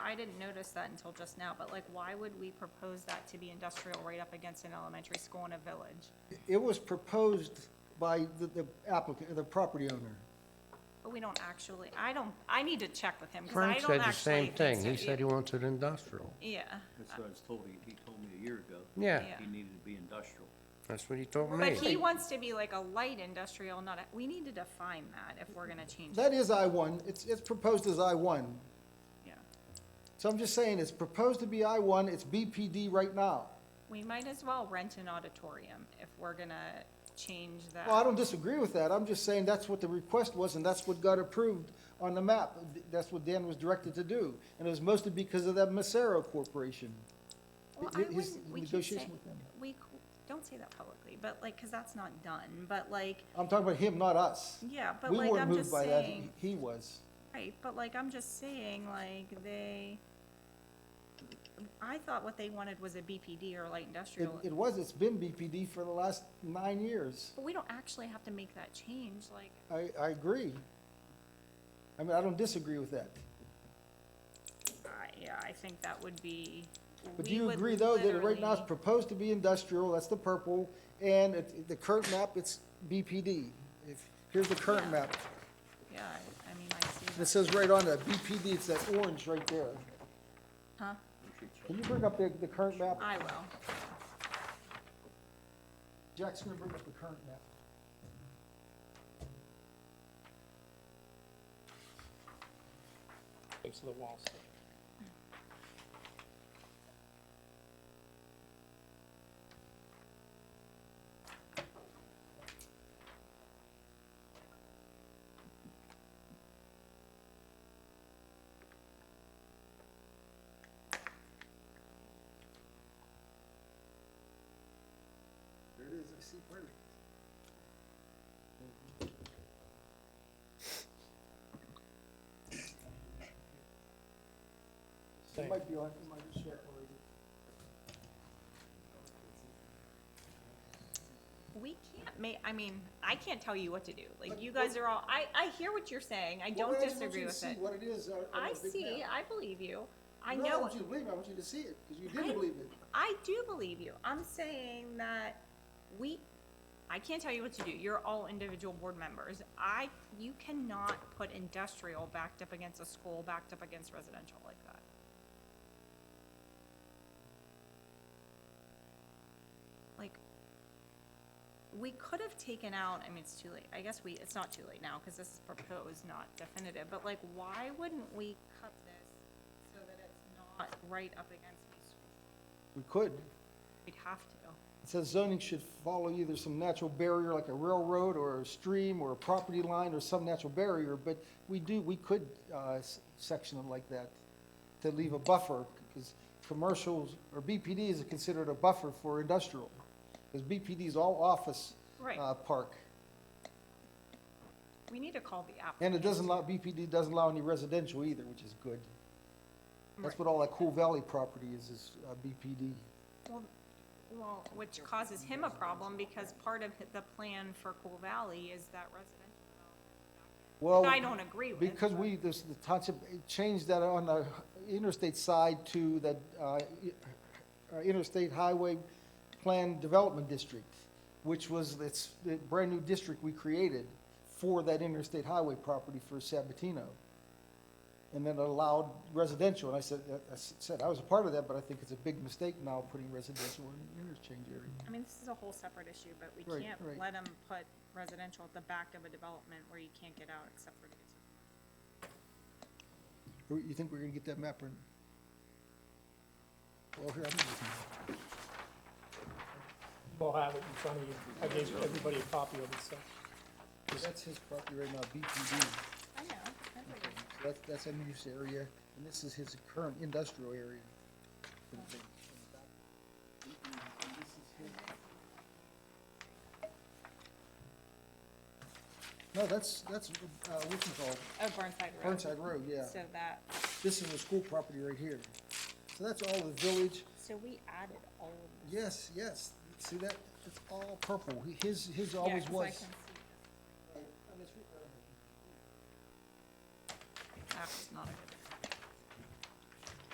I didn't notice that until just now, but like, why would we propose that to be industrial right up against an elementary school in a village? It was proposed by the- the applicant, the property owner. But we don't actually, I don't, I need to check with him, because I Frank don't actually. said the same think thing. so. He said he wants it industrial. Yeah, That's what I was told, he, he told me a year ago. Yeah, Yeah. He needed to be industrial. that's what he told but he me. wants to be like a light industrial, not a, we need to define that if we're gonna change it, That is I-1, it's, it's proposed as I-1. yeah. So I'm just saying, it's proposed to be I-1, it's BPD right now. We might as well rent an auditorium if we're gonna change that. Well, I don't disagree with that, I'm just saying that's what the request was, and that's what got approved on the map. That's what Dan was directed to do, and it was mostly because of that Macero Corporation. Well, I Hi- his wouldn't, we keep negotiation saying, with them. we, c- don't say that publicly, but like, because that's not done, but like, I'm talking about him, not us. yeah, but We like, weren't I'm moved just by that, saying, he was. right, but like, I'm just saying, like, they, I thought what they wanted was a BPD or light It, industrial, it was, it's been BPD for the last nine years. but we don't actually have to make that change, like, I, I agree. I mean, I don't disagree with that. I, yeah, I think that would be, But do we you would agree, though, that right now it's literally- proposed to be industrial, that's the purple, and it, the current map, it's BPD? If, here's the current Yeah. map, Yeah, I, I mean, I see and it that, says right on it, BPD, it's that orange right there. huh, Can you bring up the, the current map? I will. Jack's gonna bring up the current map. Close to the wall. so- There it is, I see perfect. It might be on, it might be shared already. We can't ma, I mean, I can't tell you what to do, like, you guys are all, I, I hear what you're saying, I Well, don't I just want disagree you to with see it. What it is. uh, on I the big see, map. I believe you, I No, I know, want you to believe, it, I want you to see it, because you I- didn't believe it. I do believe you, I'm saying that we, I can't tell you what to do, you're all individual board members. I, you cannot put industrial backed up against a school, backed up against residential like that. Like, we could have taken out, I mean, it's too late, I guess we, it's not too late now, because this is proposed, not definitive, but like, why wouldn't we cut this so that it's not right up against these schools? We could. We'd have to. It says zoning should follow either some natural barrier like a railroad or a stream or a property line or some natural barrier, but we do, we could uh, s- section it like that to leave a buffer, because commercials or BPD is considered a buffer for industrial. Because BPD is all office Right. uh, park. We need to call the app. And it doesn't allow, BPD doesn't allow any residential either, which is good. That's what all that Cool Valley property is, is uh, BPD. Well, well, which causes him a problem because part of the plan for Cool Valley is that residential development. Well, That I don't agree with. because we, this, the township changed that on the interstate side to the, uh, uh, Interstate Highway Plan Development District, which was, it's the brand-new district we created for that interstate highway property for Sabatino. And then allowed residential, and I said, uh, I said, I was a part of that, but I think it's a big mistake now putting residential in the interchange area. I mean, this is a whole separate issue, but we Right, can't right. let him put residential at the back of a development where you can't get out except for. You think we're gonna get that map or? Well, here, I'm gonna. We'll have it in front of you. I gave everybody a copy of it, so. That's his property right now, BPD. I know. That's, that's a use area, and this is his current industrial area. No, that's, that's, uh, what's it called? Oh, Burnside Road. Burnside Road, yeah. So that, This is the school property right here. So that's all the village. so we added all of this. Yes, yes. See that? It's all purple. He- His, his Yeah, always 'cause I was. can see this. That was not a good